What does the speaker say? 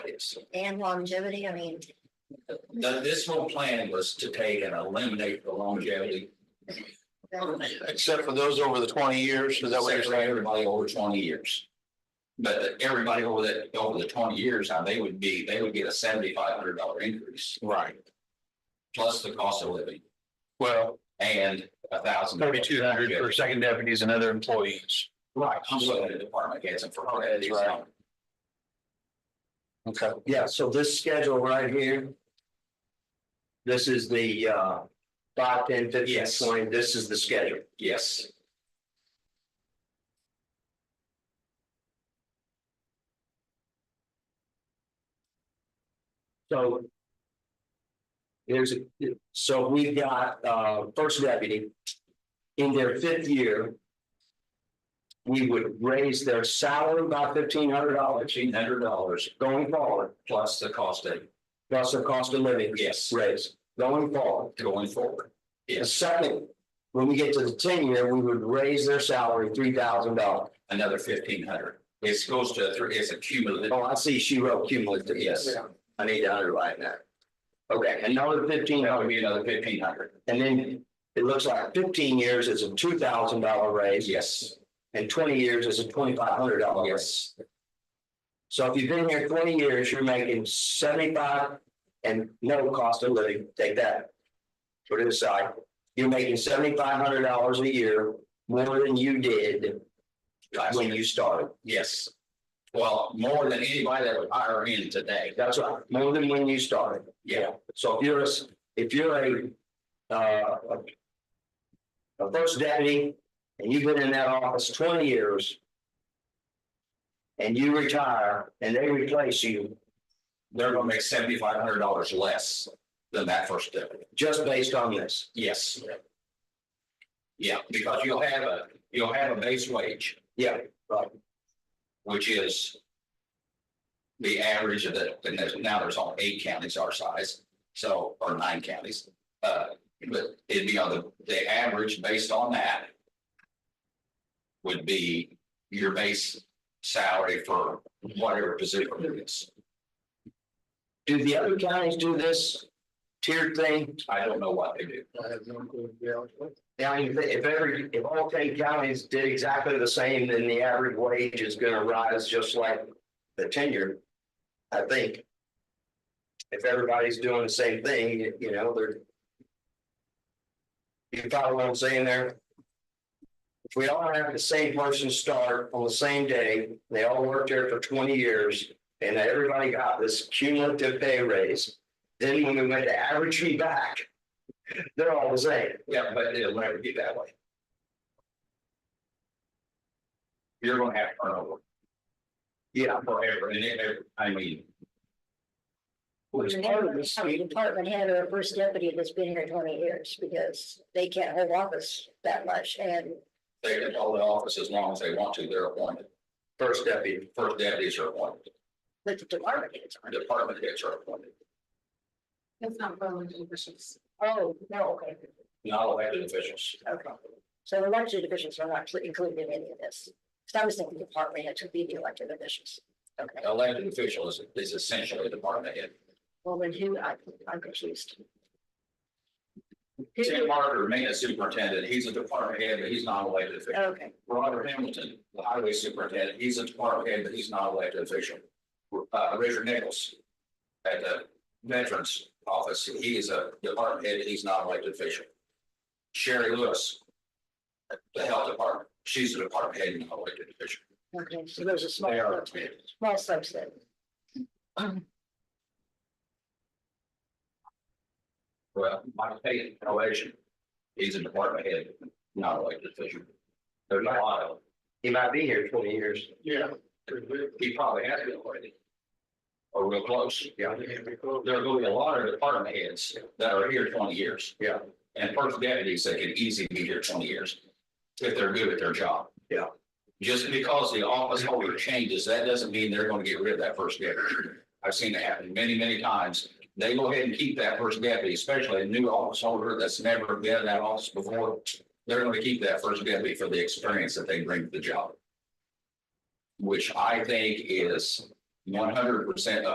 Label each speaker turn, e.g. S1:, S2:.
S1: years.
S2: and longevity, I mean,
S1: Now, this whole plan was to take and eliminate the longevity.
S2: that-
S3: Except for those over the twenty years, is that what you're
S1: Except for
S3: saying?
S1: Everybody over twenty years. But everybody over that, over the twenty years, now they would be, they would get a seventy-five hundred dollar increase,
S3: Right,
S1: plus the cost of living
S3: well,
S1: and a thousand.
S3: thirty-two hundred for second deputies and other employees.
S1: Right, I'm looking at the department heads and for her, it's right.
S3: Okay.
S4: Yeah, so this schedule right here. This is the uh five, ten, fifteen,
S1: Yes.
S4: twenty, this is the schedule.
S1: Yes,
S4: So. There's, a so we've got uh first deputy. In their fifth year. We would raise their salary by fifteen hundred dollars
S1: fifteen hundred dollars
S4: going forward,
S1: plus the cost of,
S4: plus the cost of living
S1: yes,
S4: raise going forward.
S1: going forward.
S4: The
S1: Yes,
S4: second, when we get to the ten year, we would raise their salary three thousand dollars.
S1: another fifteen hundred. It goes to three, it's a cumulative,
S4: Oh, I see, she wrote cumulative, yes, I need to underline that. Okay, another fifteen
S1: that would
S4: hundred,
S1: be another fifteen hundred.
S4: and then it looks like fifteen years is a two thousand dollar raise,
S1: Yes,
S4: and twenty years is a twenty-five hundred dollar raise.
S1: yes,
S4: So if you've been here twenty years, you're making seventy-five and no cost of living, take that. Put it aside, you're making seventy-five hundred dollars a year more than you did
S1: Last
S4: when you started.
S1: yes. Well, more than anybody that would hire in today.
S4: That's right, more than when you started.
S1: Yeah,
S4: So if you're a, s- if you're a, uh, a- a first deputy and you've been in that office twenty years. And you retire and they replace you
S1: they're gonna make seventy-five hundred dollars less than that first deputy.
S4: just based on this.
S1: Yes. Yeah, because you'll have a, you'll have a base wage.
S4: Yeah,
S1: which is the average of the, and there's, now there's only eight counties our size, so, or nine counties. Uh, but it'd be on the, the average based on that would be your base salary for whatever position it is.
S4: do the other counties do this tiered thing?
S1: I don't know what they do.
S4: Now, if if every, if all ten counties did exactly the same, then the average wage is gonna rise just like the tenure. I think. If everybody's doing the same thing, you know, they're. You follow what I'm saying there? If we all have the same person start on the same day, they all worked there for twenty years, and everybody got this cumulative pay raise. Then when we went to average me back, they're all the same.
S1: Yeah, but it'll never be that way. You're gonna have turnover
S4: Yeah,
S1: forever and ever. I mean.
S4: well, it's part of this,
S2: How many Department head or a first deputy that's been here twenty years because they can't hold office that much and
S1: They can hold the office as long as they want to, they're appointed,
S4: first deputy,
S1: first deputies are appointed,
S2: with the department heads. aren't.
S1: department heads are appointed.
S5: It's not Berlin officials.
S2: Oh, no, okay,
S1: Not elected officials,
S2: okay. So elected officials are not included in any of this. So I was thinking department heads would be the elected officials. Okay,
S1: elected official is, is essentially a department head.
S2: well, then who, I, I'm confused. Who-
S1: Tim Martin, maintenance superintendent, he's a department head, but he's not an elected official.
S2: Okay,
S1: Robert Hamilton, the highway superintendent, he's a department head, but he's not an elected official. Uh, Richard Nichols at the Veterans Office, he is a department head, he's not an elected official. Sherry Lewis, at the Health Department, she's a department head, not an elected official.
S2: okay, so there's a small,
S1: They are.
S2: subset- small subset.
S1: Well, Mike Payton, probation, he's a department head, not elected official. There's not a lot of them.
S4: he might be here twenty years.
S6: Yeah.
S1: He probably has been already. Or real close.
S4: Yeah.
S1: There will be a lot of department heads that are here twenty years.
S4: Yeah.
S1: And first deputies that could easily be here twenty years, if they're good at their job.
S4: Yeah.
S1: Just because the office holder changes, that doesn't mean they're gonna get rid of that first deputy. I've seen it happen many, many times. They go ahead and keep that first deputy, especially a new office holder that's never been in that office before. They're gonna keep that first deputy for the experience that they bring to the job. Which I think is one hundred percent